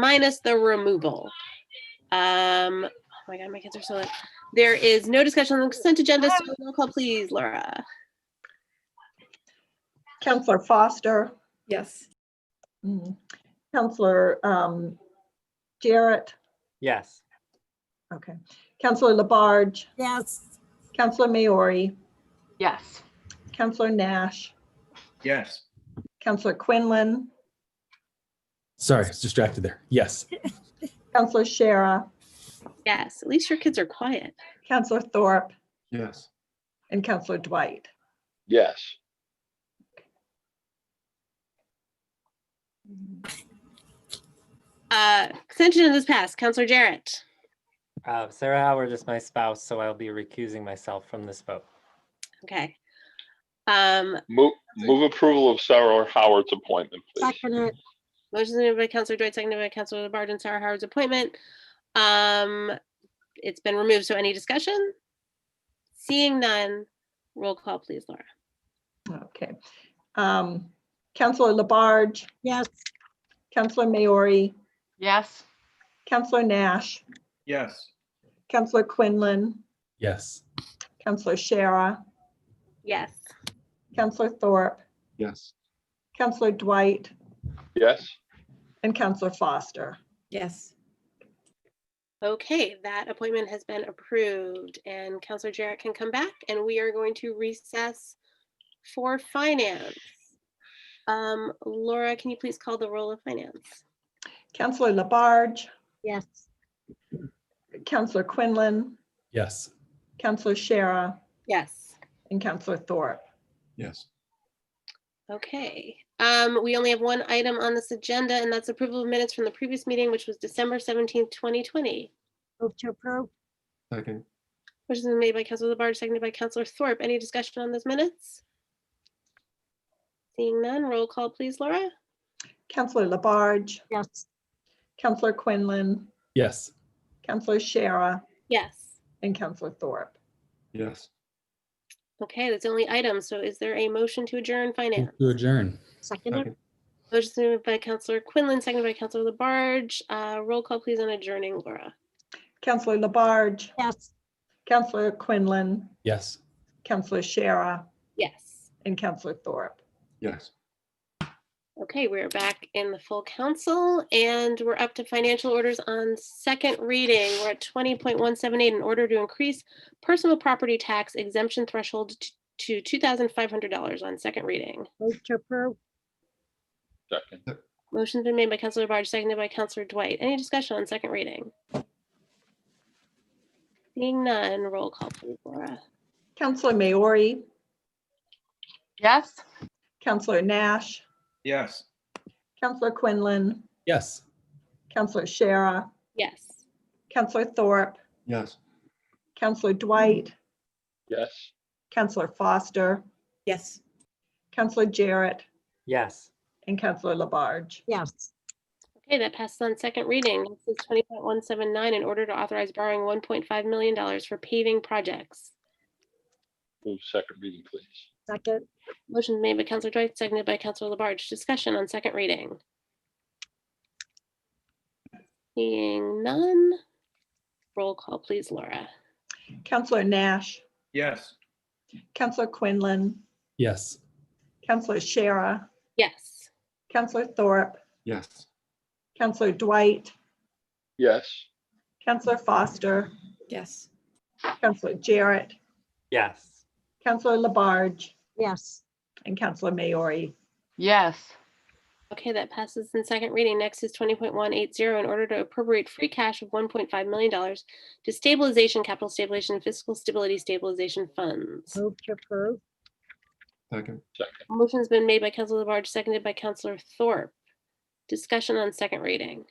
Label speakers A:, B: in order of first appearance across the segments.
A: minus the removal. Um, oh my God, my kids are so late. There is no discussion on the consent agenda, so roll call please, Laura.
B: Counselor Foster,
C: Yes.
B: mm, Counselor um, Jarrett,
D: Yes.
B: okay, Counselor Labarge,
E: Yes.
B: Counselor Maori,
F: Yes.
B: Counselor Nash,
G: Yes.
B: Counselor Quinlan,
H: Sorry, I was distracted there. Yes.
B: Counselor Shara,
A: Yes, at least your kids are quiet.
B: Counselor Thorpe,
G: Yes.
B: and Counselor Dwight.
I: yes.
A: Uh, consent agenda is passed. Counselor Jarrett,
D: Uh, Sarah Howard is my spouse, so I'll be recusing myself from this vote.
A: okay. Um,
I: Move, move approval of Sarah Howard's appointment, please.
E: Second it.
A: motion made by Counselor Dwight, seconded by Counselor Labarge and Sarah Howard's appointment. Um, it's been removed, so any discussion? Seeing none, roll call please, Laura.
B: Okay. Um, Counselor Labarge,
E: Yes.
B: Counselor Maori,
F: Yes.
B: Counselor Nash,
G: Yes.
B: Counselor Quinlan,
H: Yes.
B: Counselor Shara,
A: Yes.
B: Counselor Thorpe,
G: Yes.
B: Counselor Dwight,
I: Yes,
B: and Counselor Foster.
C: Yes.
A: Okay, that appointment has been approved and Counselor Jarrett can come back and we are going to recess for finance. Um, Laura, can you please call the roll of finance?
B: Counselor Labarge,
E: Yes.
B: Counselor Quinlan,
H: Yes.
B: Counselor Shara,
A: Yes.
B: and Counselor Thorpe.
G: Yes.
A: Okay, um, we only have one item on this agenda and that's approval of minutes from the previous meeting, which was December seventeenth, twenty twenty.
E: Move to approve.
G: Second.
A: Which is made by Counselor Labarge, seconded by Counselor Thorpe. Any discussion on those minutes? Seeing none, roll call please, Laura.
B: Counselor Labarge,
E: Yes.
B: Counselor Quinlan,
H: Yes.
B: Counselor Shara,
A: Yes.
B: and Counselor Thorpe.
G: Yes.
A: Okay, that's the only item. So is there a motion to adjourn finance?
H: To adjourn.
E: Second it.
A: Motion moved by Counselor Quinlan, seconded by Counselor Labarge. Uh, roll call please on adjourning, Laura.
B: Counselor Labarge,
E: Yes.
B: Counselor Quinlan,
H: Yes.
B: Counselor Shara,
A: Yes.
B: and Counselor Thorpe.
G: Yes.
A: Okay, we're back in the full council and we're up to financial orders on second reading. We're at twenty point one seven eight in order to increase personal property tax exemption threshold t- to two thousand five hundred dollars on second reading.
E: Move to approve.
I: second.
A: Motion's been made by Counselor Barge, seconded by Counselor Dwight. Any discussion on second reading? Seeing none, roll call please, Laura.
B: Counselor Maori,
F: Yes.
B: Counselor Nash,
G: Yes.
B: Counselor Quinlan,
H: Yes.
B: Counselor Shara,
A: Yes.
B: Counselor Thorpe,
G: Yes.
B: Counselor Dwight,
I: Yes.
B: Counselor Foster,
C: Yes.
B: Counselor Jarrett,
D: Yes.
B: and Counselor Labarge.
E: Yes.
A: Okay, that passes on second reading. This is twenty point one seven nine, in order to authorize borrowing one point five million dollars for paving projects.
I: Move second reading, please.
E: Second.
A: Motion's made by Counselor Dwight, seconded by Counselor Labarge. Discussion on second reading. Seeing none, roll call please, Laura.
B: Counselor Nash,
G: Yes.
B: Counselor Quinlan,
H: Yes.
B: Counselor Shara,
A: Yes.
B: Counselor Thorpe,
G: Yes.
B: Counselor Dwight,
I: Yes.
B: Counselor Foster,
C: Yes.
B: Counselor Jarrett,
D: Yes.
B: Counselor Labarge,
E: Yes.
B: and Counselor Maori.
F: Yes.
A: Okay, that passes in second reading. Next is twenty point one eight zero, in order to appropriate free cash of one point five million dollars to stabilization, capital stabilization, fiscal stability stabilization funds.
E: Move to approve.
G: Second.
I: Second.
A: Motion's been made by Counselor Labarge, seconded by Counselor Thorpe. Discussion on second reading.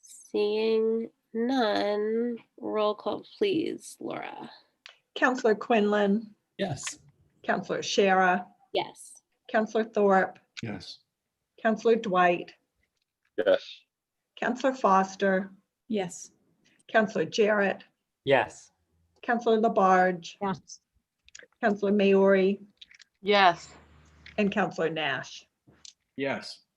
A: Seeing none, roll call please, Laura.
B: Counselor Quinlan,
H: Yes.
B: Counselor Shara,
A: Yes.
B: Counselor Thorpe,
G: Yes.
B: Counselor Dwight,
I: Yes.
B: Counselor Foster,
C: Yes.
B: Counselor Jarrett,
D: Yes.
B: Counselor Labarge,
E: Yes.
B: Counselor Maori,
F: Yes.
B: and Counselor Nash.
G: Yes.